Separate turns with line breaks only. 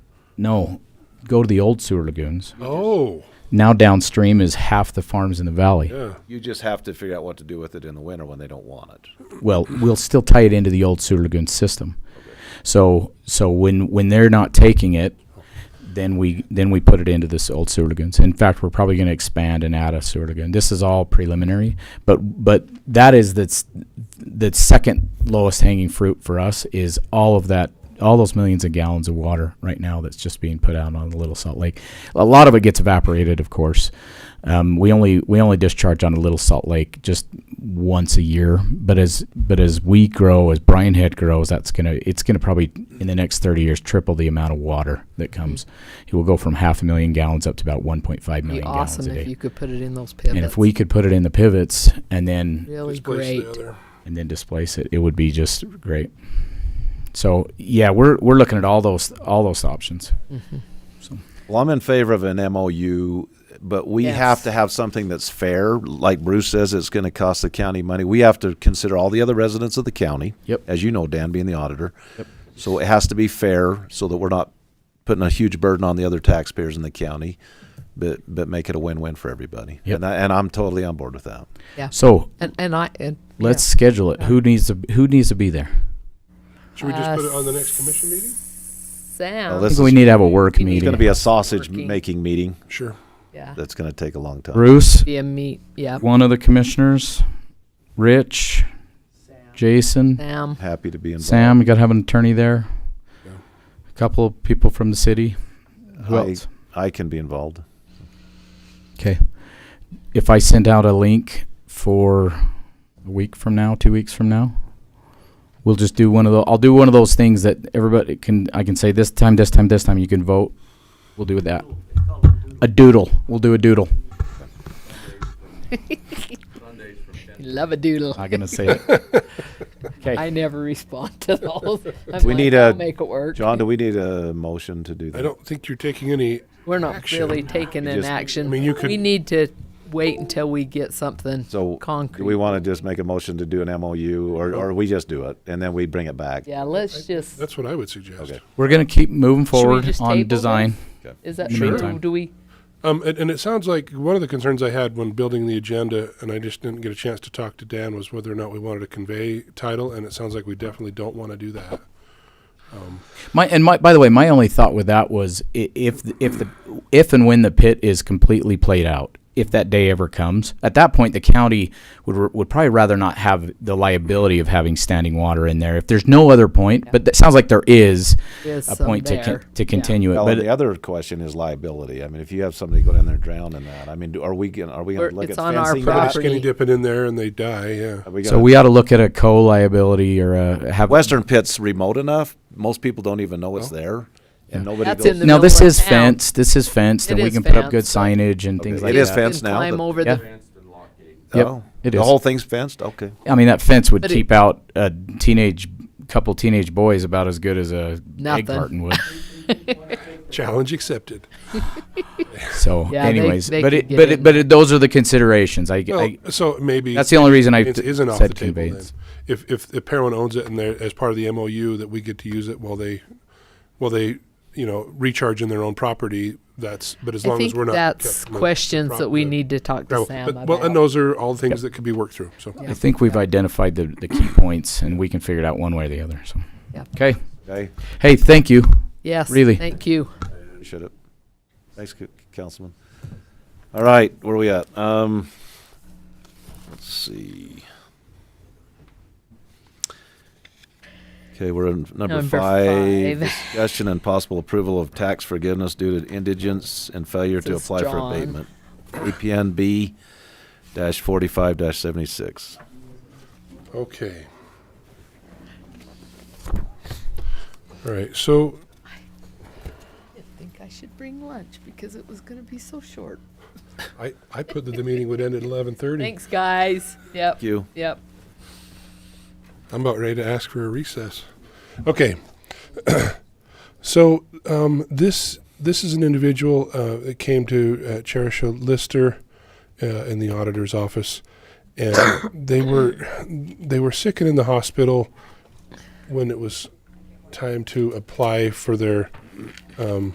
No, go to the old sewer lagoons.
Oh,
Now downstream is half the farms in the valley.
yeah.
You just have to figure out what to do with it in the winter when they don't want it.
well, we'll still tie it into the old sewer lagoon system. So, so when, when they're not taking it, then we, then we put it into this old sewer lagoons. In fact, we're probably gonna expand and add a sewer lagoon. This is all preliminary, but, but that is, that's, the second lowest hanging fruit for us is all of that, all those millions of gallons of water right now that's just being put out on the Little Salt Lake. A lot of it gets evaporated, of course. Um, we only we only discharge on the Little Salt Lake just once a year, but as but as we grow, as Brian Head grows, that's gonna it's gonna probably in the next thirty years triple the amount of water that comes. It will go from half a million gallons up to about one point five
It'd be
million
awesome
gallons a
if
day.
you could put it in those pivots.
and if we could put it in the pivots and then
really
Displace the
great.
other.
and then displace it, it would be just great. So yeah, we're we're looking at all those all those options.
Well, I'm in favor of an MOU, but we
Yes.
have to have something that's fair. Like Bruce says, it's going to cost the county money. We have to consider all the other residents of the county.
Yep.
As you know, Dan being the auditor. Yep. So it has to be fair so that we're not putting a huge burden on the other taxpayers in the county, but, but make it a win-win for everybody.
Yep.
And, I, and I'm totally on board with that.
Yeah.
So
and and I and yeah.
let's schedule it. Who needs to who needs to be there?
Should we just
Uh,
put it on the next commission meeting?
Sam.
I
This
think we
is-
need to have a work
we need
It's going
meeting.
to be a sausage-making
Working.
meeting
Sure.
yeah.
that's going to take a long time.
Bruce,
Be a meet. Yeah.
one of the commissioners, Rich, Jason,
Sam.
Happy to be involved.
Sam. You got to have an attorney there.
Yeah.
A couple of people from the city. Who
I-
else?
I can be involved.
Okay. If I send out a link for a week from now, two weeks from now, we'll just do one of the. I'll do one of those things that everybody can. I can say this time, this time, this time. You can vote. We'll do that. A doodle. We'll do a doodle.
Love a doodle.
Not gonna say it.
I
Okay.
never respond to those. I'm
We
like,
need
I'll
a-
make it work.
John, do we need a motion to do that?
I don't think you're taking any.
We're not
action.
really taking an
just-
action.
I mean, you could-
We need to wait until we get something
So do
concrete.
we want to just make a motion to do an MOU or, or we just do it and then we bring it back?
yeah. Let's just.
That's what I would suggest.
Okay.
We're gonna keep moving
we
forward
just
on
table
design.
this? Is that
In the
true?
meantime.
Do we?
Um, and, and it sounds like one of the concerns I had when building the agenda, and I just didn't get a chance to talk to Dan, was whether or not we wanted to convey title, and it sounds like we definitely don't want to do that. Um,
My and my by the way, my only thought with that was i- if th- if the if and when the pit is completely played out, if that day ever comes, at that point the county would r- would probably rather not have the liability of having standing water in there. If there's no other point, but that sounds like there is
There's
a point
some
to con-
there.
to
Yeah.
continue
Well,
it.
and
But
the other question is liability. I mean, if you have somebody go down there and drown in that, I mean, do- are we gonna, are we gonna
We're-
look at
it's on our
fencing
Put a
that?
property.
skinny dipping in there and they die, yeah.
Are we
so
gonna-
we ought to look at a co-liability or a have
Western Pit's remote enough. Most people don't even know it's there and nobody
That's
goes.
in the
Now this
middle of
is
town.
fenced. This is fenced,
It
and we
is
can put up good
fenced, so-
signage and things
Okay.
like
It is
that.
You can
fenced now,
Climb
but-
over
Yeah.
the
Yep,
Oh,
it
The
is.
whole thing's fenced? Okay.
I mean, that fence would
But it-
keep out a teenage couple teenage boys about as good as a egg
Nothing.
carton would.
Challenge accepted.
So,
Yeah, they-
anyways,
they
but
could
it,
get
but it,
in
but it, those are the considerations. I,
Well,
I
so maybe
that's the only reason I
conveyance
th-
isn't off the
said
table then.
conveyance.
If, if the parent owns it and they're, as part of the MOU, that we get to use it while they, while they, you know, recharge in their own property, that's, but as
I
long as
think
we're not.
that's
kept from the
questions
prop-
that we
the
need to talk to
gravel.
Sam
But-
about.
Well, and those are all things that could be worked through, so.
I think we've identified the, the key points, and we can figure it out one way or the other. So,
Yep.
okay.
Okay.
Hey, thank you.
yes,
really.
Thank you.
Shut up. Thanks, Cou- Councilman. All right, where are we at? Um, let's see. Okay, we're in number
Number
five.
five.
Discussion and possible approval of tax forgiveness due to indigence and failure to
This is
apply for
John.
abatement. APN B dash forty-five dash seventy-six.
Okay. All right, so
I think I should bring lunch because it was going to be so short.
I, I put that the meeting would end at eleven thirty.
Thanks, guys. Yep.
Thank you.
Yep.
I'm about ready to ask for a recess. Okay. So, um, this, this is an individual, uh, that came to, uh, Cherisha Lister, uh, in the auditor's office. And they were, they were sick and in the hospital when it was time to apply for their, um,